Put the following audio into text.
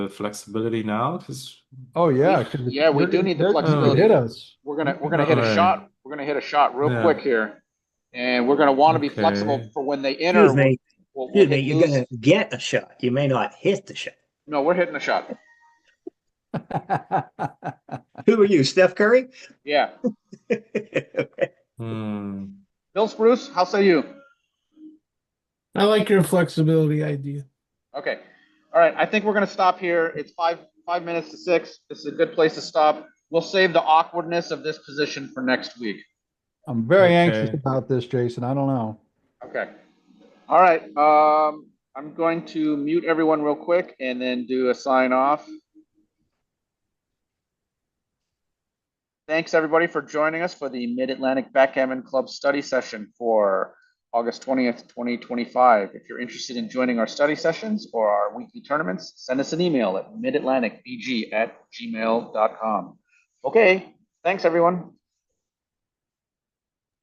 the flexibility now? Because Oh, yeah. 'cause Yeah, we they're- do need the they're gonna flexibility. Hit us. We're gonna, we're gonna hit Alright. a shot, we're gonna hit a shot real Yeah. quick here. And we're gonna wanna be Okay. flexible for when they enter. Excuse me, we'll- we'll excuse me, hit you're loose. gonna get a shot. You may not hit the shot. No, we're hitting a shot. Who are you, Steph Curry? Yeah. hmm, Bill Spruce, how say you? I like your flexibility idea. Okay. All right. I think we're going to stop here. It's five five minutes to six. This is a good place to stop. We'll save the awkwardness of this position for next week. I'm very anxious Okay. about this, Jason. I don't know. Okay. All right. Um, I'm going to mute everyone real quick and then do a sign off. Thanks everybody for joining us for the Mid Atlantic Backgammon Club study session for August 20th, 2025. If you're interested in joining our study sessions or our weekly tournaments, send us an email at midatlanticbg at gmail.com. Okay. Thanks everyone.